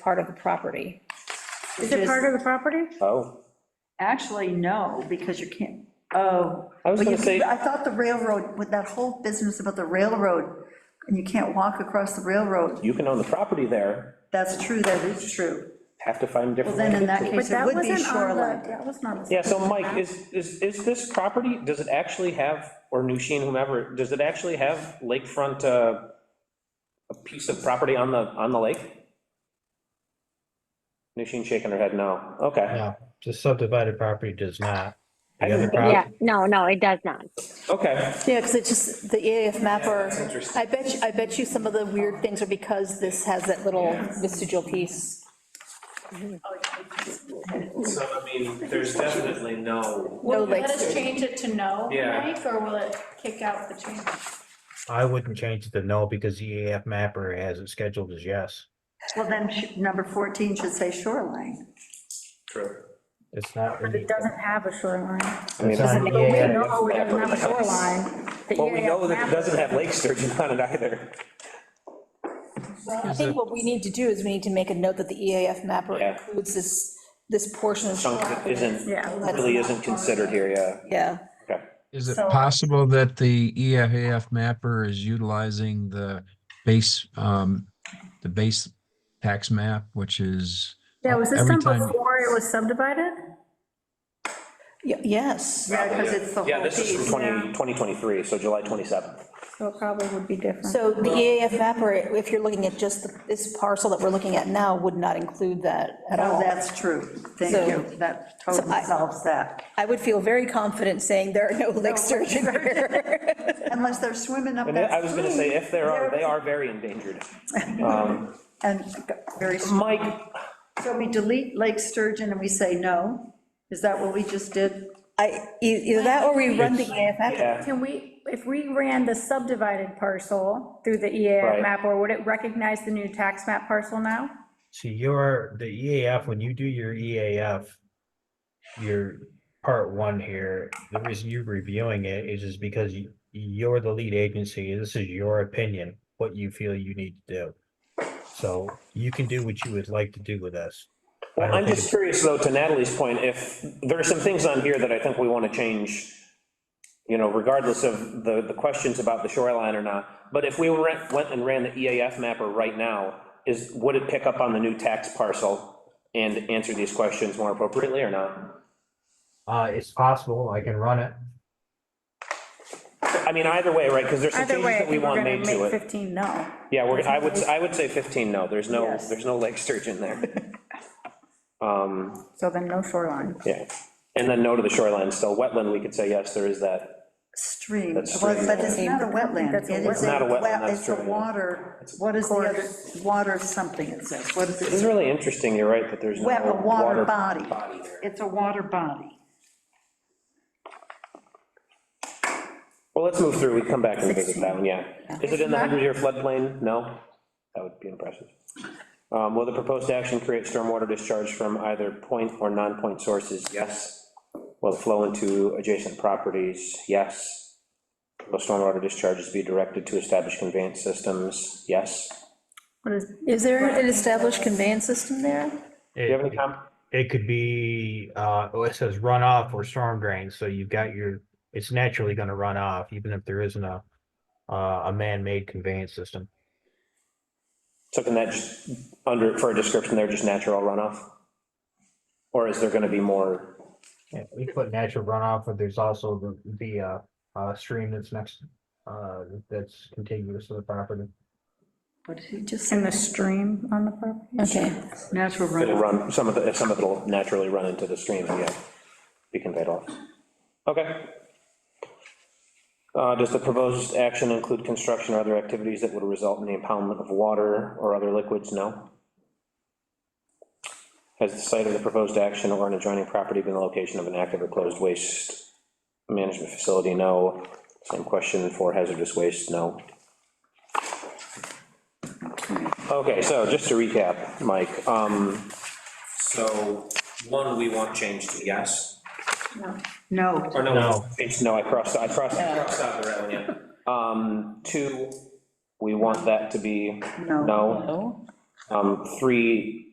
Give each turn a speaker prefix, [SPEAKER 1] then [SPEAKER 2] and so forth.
[SPEAKER 1] part of the property.
[SPEAKER 2] Is it part of the property?
[SPEAKER 3] Oh,
[SPEAKER 4] Actually, no, because you can't, oh.
[SPEAKER 3] I was
[SPEAKER 4] but
[SPEAKER 3] gonna
[SPEAKER 4] you-
[SPEAKER 3] say-
[SPEAKER 4] I thought the railroad, with that whole business about the railroad, and you can't walk across the railroad,
[SPEAKER 3] you can own the property there,
[SPEAKER 4] that's true, that is true.
[SPEAKER 3] have to find a different.
[SPEAKER 4] Well, then in that
[SPEAKER 3] way to-
[SPEAKER 4] case-
[SPEAKER 2] But
[SPEAKER 4] It
[SPEAKER 2] that
[SPEAKER 4] would be
[SPEAKER 2] wasn't on
[SPEAKER 4] shoreline.
[SPEAKER 2] the, that wasn't on the.
[SPEAKER 3] Yeah, so Mike, is, is, is this property, does it actually have, or Nushin, whomever, does it actually have lakefront, uh, a piece of property on the, on the lake? Nushin shaking her head, no, okay.
[SPEAKER 5] No, the subdivided property does not.
[SPEAKER 3] I
[SPEAKER 5] The
[SPEAKER 3] didn't
[SPEAKER 5] other
[SPEAKER 3] think-
[SPEAKER 5] property,
[SPEAKER 6] Yeah, no, no, it does not.
[SPEAKER 3] Okay,
[SPEAKER 7] Yeah, because it's just the EAF mapper.
[SPEAKER 3] that's interesting.
[SPEAKER 7] I bet, you- I bet you some of the weird things are because this has that little vestigial piece.
[SPEAKER 3] so, I mean, there's definitely no,
[SPEAKER 7] No
[SPEAKER 8] Will you let
[SPEAKER 7] lakes.
[SPEAKER 8] us change it to no,
[SPEAKER 3] Yeah.
[SPEAKER 8] Mike, or will it kick out the change?
[SPEAKER 5] I wouldn't change it to no because the EAF mapper has it scheduled as yes.
[SPEAKER 4] Well, then sh- number 14 should say shoreline.
[SPEAKER 3] true.
[SPEAKER 5] It's not. in
[SPEAKER 2] But
[SPEAKER 5] the-
[SPEAKER 2] it doesn't have a shoreline.
[SPEAKER 5] it's E not in the
[SPEAKER 2] But we
[SPEAKER 5] EAF.
[SPEAKER 2] know it doesn't have a shoreline. The
[SPEAKER 3] Well, we know that
[SPEAKER 2] EAF
[SPEAKER 3] it doesn't have lake sturgeon on it either.
[SPEAKER 7] I think what we need to do is we need to make a note that the EAF mapper
[SPEAKER 3] Yeah.
[SPEAKER 7] includes this, this portion of.
[SPEAKER 3] Chunk that
[SPEAKER 7] shoreline.
[SPEAKER 3] isn't,
[SPEAKER 2] Yeah.
[SPEAKER 3] really isn't considered here, yeah.
[SPEAKER 7] Yeah,
[SPEAKER 9] Is it
[SPEAKER 2] So-
[SPEAKER 9] possible that the E EFAF mapper is utilizing the base, um, the base tax map, which is,
[SPEAKER 2] Yeah, was this
[SPEAKER 9] Every
[SPEAKER 2] done
[SPEAKER 9] time-
[SPEAKER 2] before it was subdivided?
[SPEAKER 7] Y- yes.
[SPEAKER 4] Yeah, because it's the
[SPEAKER 3] Yeah,
[SPEAKER 4] whole
[SPEAKER 3] this is
[SPEAKER 4] piece.
[SPEAKER 3] from 20 2023, so July 27th.
[SPEAKER 2] So it probably would be different.
[SPEAKER 7] So the EAF mapper, if you're looking at just the- this parcel that we're looking at now, would not include that at
[SPEAKER 4] Oh,
[SPEAKER 7] all.
[SPEAKER 4] that's true.
[SPEAKER 7] So-
[SPEAKER 4] Thank you. That totally
[SPEAKER 7] I-
[SPEAKER 4] solves that.
[SPEAKER 7] I would feel very confident saying there are no lake sturgeon here.
[SPEAKER 4] Unless they're swimming
[SPEAKER 2] Oh,
[SPEAKER 4] up
[SPEAKER 3] And I
[SPEAKER 4] that
[SPEAKER 3] was gonna say,
[SPEAKER 4] stream.
[SPEAKER 3] if there are, they are very endangered. Um,
[SPEAKER 4] And very, so
[SPEAKER 3] Mike,
[SPEAKER 4] we delete Lake Sturgeon and we say no? Is that what we just did?
[SPEAKER 7] I, e- either that or we run the EAF mapper.
[SPEAKER 3] yeah,
[SPEAKER 2] Can we, if we ran the subdivided parcel through the EAF
[SPEAKER 3] Right.
[SPEAKER 2] map, or would it recognize the new tax map parcel now?
[SPEAKER 5] So your, the EAF, when you do your EAF, your part one here, the reason you're reviewing it is just because you, you're the lead agency, this is your opinion, what you feel you need to do. So you can do what you would like to do with this. I
[SPEAKER 3] Well,
[SPEAKER 5] don't
[SPEAKER 3] I'm
[SPEAKER 5] think
[SPEAKER 3] just
[SPEAKER 5] it's-
[SPEAKER 3] curious, though, to Natalie's point, if, there are some things on here that I think we want to change, you know, regardless of the, the questions about the shoreline or not, but if we went went and ran the EAF mapper right now, is, would it pick up on the new tax parcel and answer these questions more appropriately or not?
[SPEAKER 5] Uh, it's possible, I can run it.
[SPEAKER 3] I mean, either way, right, because there's some
[SPEAKER 2] Either
[SPEAKER 3] changes
[SPEAKER 2] way, I
[SPEAKER 3] that we
[SPEAKER 2] think we're
[SPEAKER 3] want
[SPEAKER 2] gonna
[SPEAKER 3] made to
[SPEAKER 2] make
[SPEAKER 3] it.
[SPEAKER 2] 15 no.
[SPEAKER 3] Yeah, we're, I would, I would say 15, no, there's no,
[SPEAKER 4] Yes.
[SPEAKER 3] there's no lake sturgeon there. Um,
[SPEAKER 2] So then no shoreline.
[SPEAKER 3] Yeah, and then no to the shoreline, still wetland, we could say, yes, there is that,
[SPEAKER 4] Stream,
[SPEAKER 3] That's
[SPEAKER 4] Well,
[SPEAKER 3] stream.
[SPEAKER 4] but it's not a wetland.
[SPEAKER 2] That's a
[SPEAKER 4] It is
[SPEAKER 3] wetland. Not a wetland,
[SPEAKER 4] wet-
[SPEAKER 3] that's
[SPEAKER 4] It's a
[SPEAKER 3] true.
[SPEAKER 4] water, what is the other, water something it says, what is
[SPEAKER 3] This is
[SPEAKER 4] it?
[SPEAKER 3] really interesting, you're right, that there's no.
[SPEAKER 4] Wet, a water body.
[SPEAKER 3] body there.
[SPEAKER 4] It's a water body.
[SPEAKER 3] Well, let's move through, we can come back and visit that one, yeah. Is it in the 100-year floodplain? No? That would be impressive. Um, Will the proposed action create stormwater discharge from either point or non-point sources? Yes. Will it flow into adjacent properties? Yes. Will stormwater discharges be directed to established conveyance systems? Yes.
[SPEAKER 2] What is,
[SPEAKER 7] Is there an established conveyance system there?
[SPEAKER 3] Do you have any comments?
[SPEAKER 5] It could be, uh, oh, it says runoff or storm drain, so you've got your, it's naturally gonna run off, even if there isn't a, uh, a man-made conveyance system.
[SPEAKER 3] So can that just, under, for a description there, just natural runoff? Or is there gonna be more,
[SPEAKER 5] Yeah, we put natural runoff, but there's also the, the, uh, uh, stream that's next, uh, that's contiguous to the property.
[SPEAKER 4] What did he just
[SPEAKER 2] in
[SPEAKER 4] say?
[SPEAKER 2] the stream on the property?
[SPEAKER 7] Okay.
[SPEAKER 4] Natural
[SPEAKER 3] it'll
[SPEAKER 4] runoff.
[SPEAKER 3] run, some of it, some of it'll naturally run into the stream, and yeah, be conveyed off. Okay. Uh, does the proposed action include construction or other activities that would result in the impoundment of water or other liquids? No. Has the site of the proposed action or an adjoining property been the location of an active or closed waste management facility? No. Same question for hazardous waste? No. Okay, so just to recap, Mike, um, so, one, we want change to yes,
[SPEAKER 4] No,
[SPEAKER 3] or no?
[SPEAKER 5] No.
[SPEAKER 3] Change, no, I crossed, I crossed, I crossed out the right one, yeah. Um, two, we want that to be
[SPEAKER 4] no.
[SPEAKER 3] no. Um, three,